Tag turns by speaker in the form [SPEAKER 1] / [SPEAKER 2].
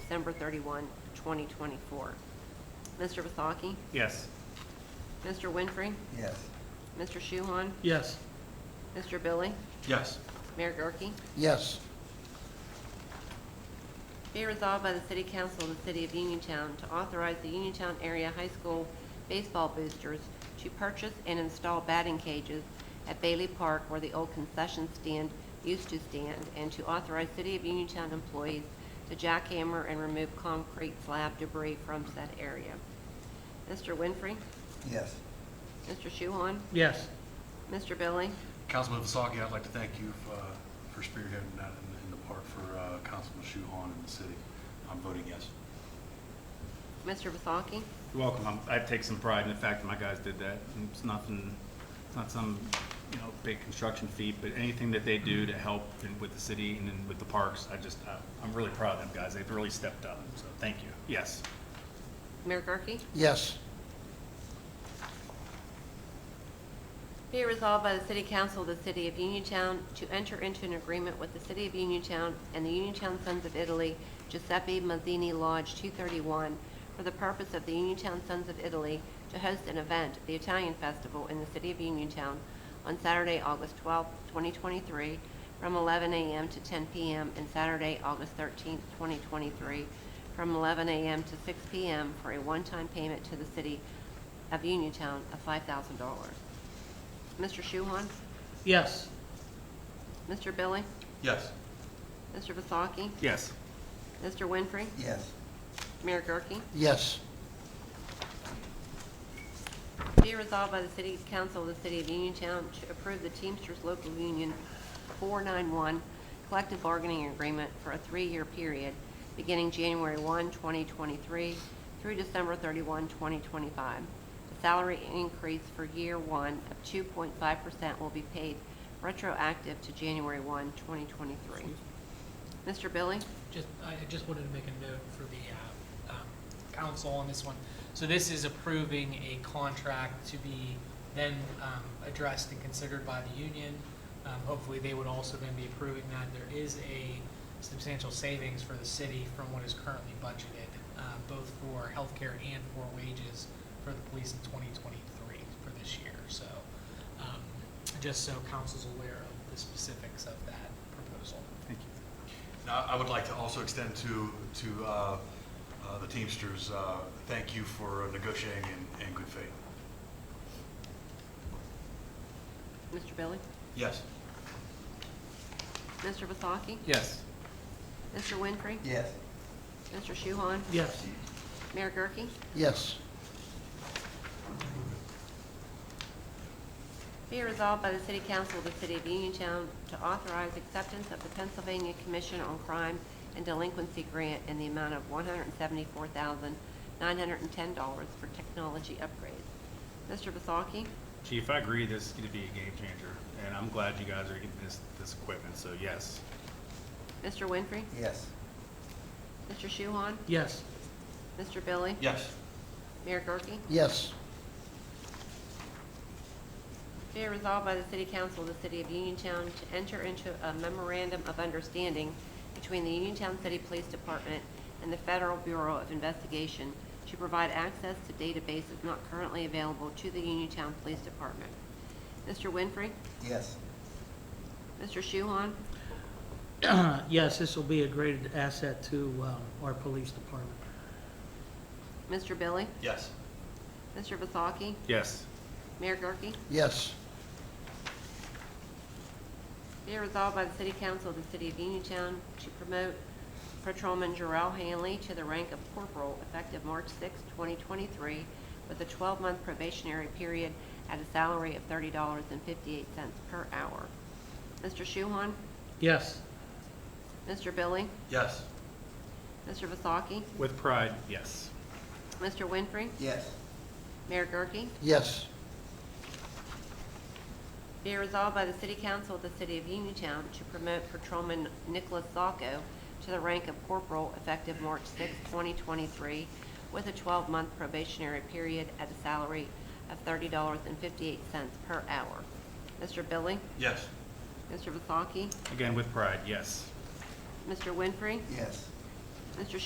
[SPEAKER 1] December 31, 2024. Mr. Vesalki?
[SPEAKER 2] Yes.
[SPEAKER 1] Mr. Winfrey?
[SPEAKER 3] Yes.
[SPEAKER 1] Mr. Shuhon?
[SPEAKER 2] Yes.
[SPEAKER 1] Mr. Billy?
[SPEAKER 2] Yes.
[SPEAKER 1] Mayor Gurke?
[SPEAKER 3] Yes.
[SPEAKER 1] Be resolved by the City Council of the City of Uniontown to authorize the Uniontown area high school baseball boosters to purchase and install batting cages at Bailey Park where the old concession stand used to stand, and to authorize City of Uniontown employees to jackhammer and remove concrete slab debris from said area. Mr. Winfrey?
[SPEAKER 3] Yes.
[SPEAKER 1] Mr. Shuhon?
[SPEAKER 2] Yes.
[SPEAKER 1] Mr. Billy?
[SPEAKER 4] Councilman Vasaki, I'd like to thank you uh, for spearheading that in- in the park for uh, Councilman Shuhon and the city. I'm voting yes.
[SPEAKER 1] Mr. Vasaki?
[SPEAKER 2] You're welcome. I'm- I take some pride in the fact that my guys did that. And It's nothing, it's not some, you know, big construction feat, but anything that they do to help in- with the city and then with the parks, I just, I- I'm really proud of them guys. They've really stepped up, so thank you. Yes.
[SPEAKER 1] Mayor Gurke?
[SPEAKER 3] Yes.
[SPEAKER 1] Be it resolved by the City Council of the City of Uniontown to enter into an agreement with the City of Uniontown and the Uniontown Sons of Italy Giuseppe Mazzini Lodge 231 for the purpose of the Uniontown Sons of Italy to host an event, the Italian Festival, in the City of Uniontown on Saturday, August 12, 2023, from 11 a.m. to 10 p.m., and Saturday, August 13, 2023, from 11 a.m. to 6 p.m. for a one-time payment to the City of Uniontown of $5,000. Mr. Shuhon?
[SPEAKER 2] Yes.
[SPEAKER 1] Mr. Billy?
[SPEAKER 4] Yes.
[SPEAKER 1] Mr. Vasaki?
[SPEAKER 2] Yes.
[SPEAKER 1] Mr. Winfrey?
[SPEAKER 3] Yes.
[SPEAKER 1] Mayor Gurke?
[SPEAKER 3] Yes.
[SPEAKER 1] Be resolved by the City Council of the City of Uniontown to approve the Teamsters Local Union 491 Collective Bargaining Agreement for a three-year period beginning January 1, 2023 through December 31, 2025. The salary increase for year one of 2.5% will be paid retroactive to January 1, 2023. Mr. Billy?
[SPEAKER 5] Just, I I just wanted to make a note for the uh, um, council on this one. So this is approving a contract to be then um, addressed and considered by the union. Um, Hopefully, they would also then be approving that. There is a substantial savings for the city from what is currently budgeted, uh, both for healthcare and for wages for the police in 2023 for this year. So um, just so council's aware of the specifics of that proposal.
[SPEAKER 2] Thank you.
[SPEAKER 4] Now, I would like to also extend to, to uh, uh, the Teamsters, uh, thank you for negotiating in, in good faith.
[SPEAKER 1] Mr. Billy?
[SPEAKER 4] Yes.
[SPEAKER 1] Mr. Vasaki?
[SPEAKER 2] Yes.
[SPEAKER 1] Mr. Winfrey?
[SPEAKER 3] Yes.
[SPEAKER 1] Mr. Shuhon?
[SPEAKER 2] Yes.
[SPEAKER 1] Mayor Gurke?
[SPEAKER 3] Yes.
[SPEAKER 1] Be it resolved by the City Council of the City of Uniontown to authorize acceptance of the Pennsylvania Commission on Crime and Delinquency Grant in the amount of one hundred and seventy-four thousand, nine hundred and ten dollars for technology upgrades. Mr. Vasaki?
[SPEAKER 2] Chief, I agree this is going to be a game changer, and I'm glad you guys are getting this, this equipment, so yes.
[SPEAKER 1] Mr. Winfrey?
[SPEAKER 3] Yes.
[SPEAKER 1] Mr. Shuhon?
[SPEAKER 2] Yes.
[SPEAKER 1] Mr. Billy?
[SPEAKER 4] Yes.
[SPEAKER 1] Mayor Gurke?
[SPEAKER 3] Yes.
[SPEAKER 1] Be it resolved by the City Council of the City of Uniontown to enter into a memorandum of understanding between the Uniontown City Police Department and the Federal Bureau of Investigation to provide access to databases not currently available to the Uniontown Police Department. Mr. Winfrey?
[SPEAKER 3] Yes.
[SPEAKER 1] Mr. Shuhon?
[SPEAKER 6] Yes, this will be a great asset to um, our police department.
[SPEAKER 1] Mr. Billy?
[SPEAKER 4] Yes.
[SPEAKER 1] Mr. Vasaki?
[SPEAKER 2] Yes.
[SPEAKER 1] Mayor Gurke?
[SPEAKER 3] Yes.
[SPEAKER 1] Be it resolved by the City Council of the City of Uniontown to promote Patrolman Jarrell Hanley to the rank of corporal effective March 6, 2023, with a 12-month probationary period at a salary of $30.58 per hour. Mr. Shuhon?
[SPEAKER 6] Yes,
[SPEAKER 1] Mr. Billy?
[SPEAKER 4] Yes.
[SPEAKER 1] Mr. Vasaki?
[SPEAKER 2] With pride, yes.
[SPEAKER 1] Mr. Winfrey?
[SPEAKER 3] Yes.
[SPEAKER 1] Mayor Gurke?
[SPEAKER 3] Yes.
[SPEAKER 1] Be it resolved by the City Council of the City of Uniontown to promote Patrolman Nicholas Sacco to the rank of corporal effective March 6, 2023, with a 12-month probationary period at a salary of $30.58 per hour. Mr. Billy?
[SPEAKER 4] Yes.
[SPEAKER 1] Mr. Vasaki?
[SPEAKER 2] Again, with pride, yes.
[SPEAKER 1] Mr. Winfrey?
[SPEAKER 3] Yes.
[SPEAKER 1] Mr.